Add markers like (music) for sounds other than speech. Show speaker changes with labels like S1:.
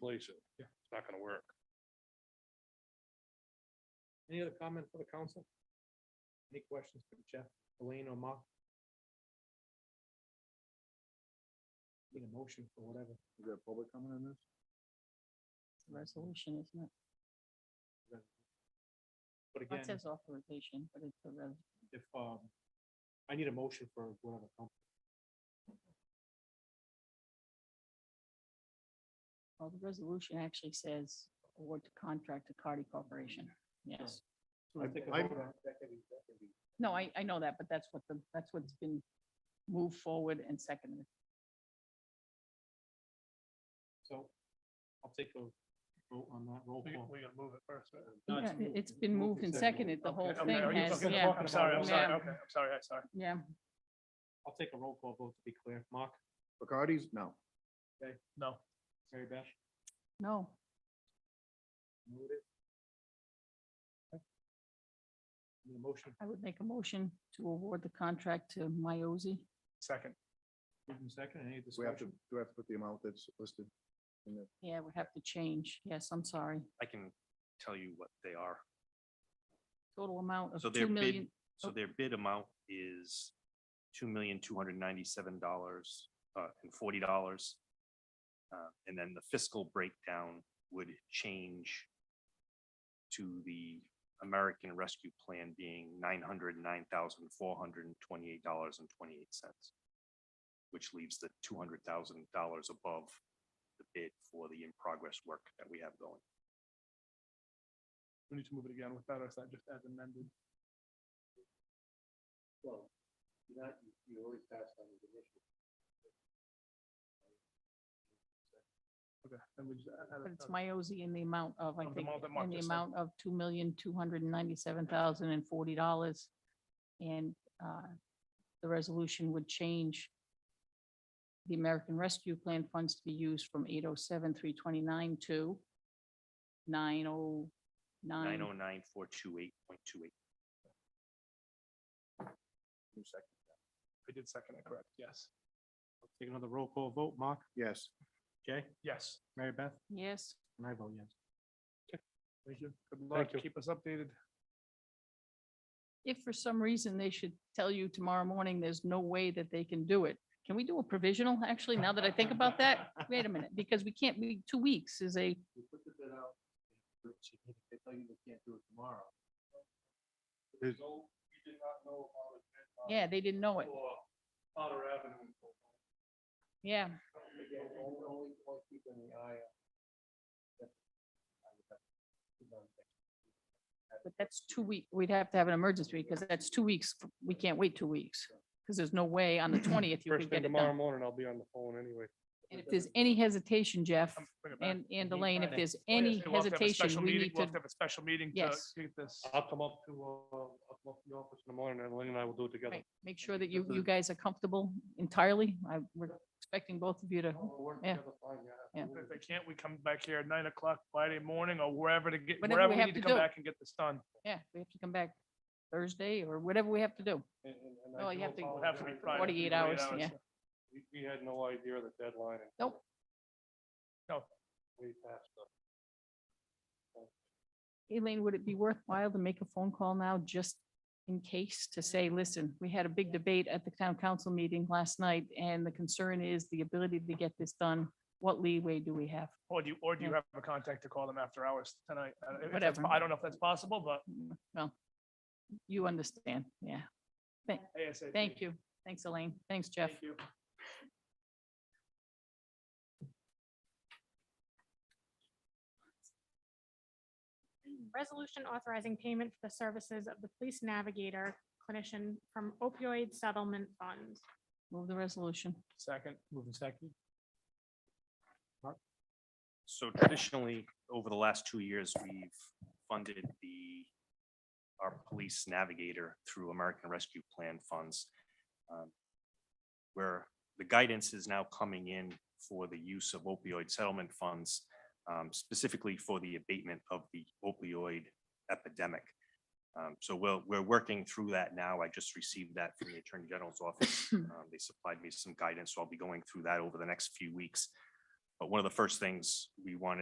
S1: fix it.
S2: Yeah.
S1: It's not gonna work.
S2: Any other comment for the council? Any questions for Jeff, Elaine, or Mark? Need a motion for whatever.
S3: Is there public comment on this?
S4: resolution, isn't it?
S2: But
S4: It
S2: again,
S4: says authorization, but it's a res,
S2: if, um, I need a motion for whatever. council.
S4: well, the resolution actually says award to contract to Cardi Corporation. Yes.
S2: So we'll take a
S3: I-
S2: vote on- that can be- that can be-
S4: No, I, I know that, but that's what the, that's what's been moved forward and seconded.
S2: So I'll take a vote on that roll
S5: We,
S2: call.
S5: we gotta move it first. right?
S2: No,
S4: Yeah,
S2: it's
S4: it-
S2: moved.
S4: It's been moved and seconded, the whole
S5: Okay,
S4: thing
S5: are you-
S4: has,
S5: okay,
S4: yeah,
S5: I'm sorry, I'm sorry,
S4: Yeah.
S5: okay, I'm sorry, I'm sorry.
S4: yeah.
S2: I'll take a roll call vote to be clear. Mark,
S3: Bacardi's? No.
S5: No,
S2: Mary Beth,
S4: No,
S2: noted. Okay. Need a motion,
S4: I would make a motion to award the contract to Miozy.
S5: second,
S2: moved in second, any
S3: We have to,
S2: discussion?
S3: do we have to put the amount that's listed? in the
S4: Yeah, we have to change. Yes, I'm sorry.
S6: I can tell you what they are.
S4: Total amount of
S6: So
S4: two
S6: their
S4: million.
S6: bid, so their bid amount is two million, two hundred ninety-seven dollars, uh, and forty dollars. Uh, and then the fiscal breakdown would change to the American Rescue Plan being nine hundred, nine thousand, four hundred and twenty-eight dollars and twenty-eight cents, which leaves the two hundred thousand dollars above the bid for the in-progress work that we have going.
S5: we need to move it again with that, or is that just as amended?
S2: Well, you're not, you always pass on the initial.
S5: Okay, then we just. add- add it-
S4: But it's Miozy in the amount of, I
S5: Of the
S4: think,
S5: amount that Mark
S4: in the
S5: just said.
S4: amount of two million, two hundred and ninety-seven thousand and forty dollars. And uh, the resolution would change the American Rescue Plan funds to be used from eight oh seven, three twenty-nine to nine oh
S6: Nine
S4: nine.
S6: oh nine, four two eight point two eight.
S3: new section.
S5: I did second it, correct, yes,
S2: Take another roll call vote, Mark,
S3: Yes,
S2: Jay,
S5: yes.
S2: Mary Beth,
S4: Yes,
S2: and I vote yes.
S5: Thank you. Good
S2: Thank
S5: luck,
S2: you.
S5: keep us updated.
S4: if for some reason they should tell you tomorrow morning, there's no way that they can do it. Can we do a provisional, actually, now that I think about
S2: (laughs)
S4: that? Wait a minute, because we can't, be two weeks is a,
S2: You put the bid out. They tell you they can't do it tomorrow.
S3: There's
S2: no, we did not know about it.
S4: yeah, they didn't know it.
S2: For Potter Avenue.
S4: Yeah,
S2: Again, only, only point keeping the eye.
S4: but that's two weeks. we'd have to have an emergency because that's two weeks. We can't wait two weeks. Because there's no way on the twentieth you
S1: First
S4: could
S1: thing
S4: get it
S1: tomorrow
S4: done.
S1: morning, I'll be on the phone anyway.
S4: And if there's any hesitation, Jeff
S5: Come bring it back.
S4: and, and
S5: Mhm.
S4: Elaine, if
S5: Thank
S4: there's
S5: Oh, yes,
S4: any
S5: we'll have to have a special
S4: hesitation, we
S5: meeting-
S4: need
S5: We'll
S4: to,
S5: have to have a special meeting to
S4: Yes.
S5: get this.
S1: I'll come up to, uh, I'll come up to the office in the morning and Elaine and I will do it together.
S4: right, make sure that you, you guys are comfortable entirely. I, we're expecting both of you to,
S1: We'll work
S4: Yeah.
S1: together fine,
S4: Yeah.
S5: If they can't, we come back here at nine o'clock Friday morning or wherever to get,
S4: Whatever
S5: wherever
S4: we
S5: we
S4: have
S5: need to
S4: to
S5: come
S4: do.
S5: back and get this done.
S4: yeah, we have to come back Thursday or whatever we have to do.
S1: And- and- and I
S4: No, you
S1: do
S4: have to-
S5: It would have to be
S1: apologize.
S5: Friday.
S4: 48 hours, yeah.
S1: We, we had no idea of the deadline. and
S4: Nope.
S5: No.
S1: We passed the
S4: Elaine, would it be worthwhile to make a phone call now just in case to say, listen, we had a big debate at the town council meeting last night and the concern is the ability to get this done. What leeway do we have?
S5: Or do you, or do you
S4: Yeah.
S5: have a contact to call them after hours tonight? I don't- if that's
S4: Whatever.
S5: po- I don't know if that's possible, but
S4: Well, you understand. Yeah.
S5: ASAP.
S4: Thank you. Thanks, Elaine. Thanks, Jeff.
S5: Thank you.
S7: Resolution authorizing payment for the services of the police navigator clinician from opioid settlement fund.
S4: Move the resolution.
S5: Second.
S2: Moving second.
S6: So traditionally, over the last two years, we've funded the, our police navigator through American Rescue Plan funds. um, Where the guidance is now coming in for the use of opioid settlement funds, um, specifically for the abatement of the opioid epidemic. Um, So we'll, we're working through that now. I just received that from the Attorney General's office. Um, They supplied me some guidance, so I'll be going through that over the next few weeks. But one of the first things we wanted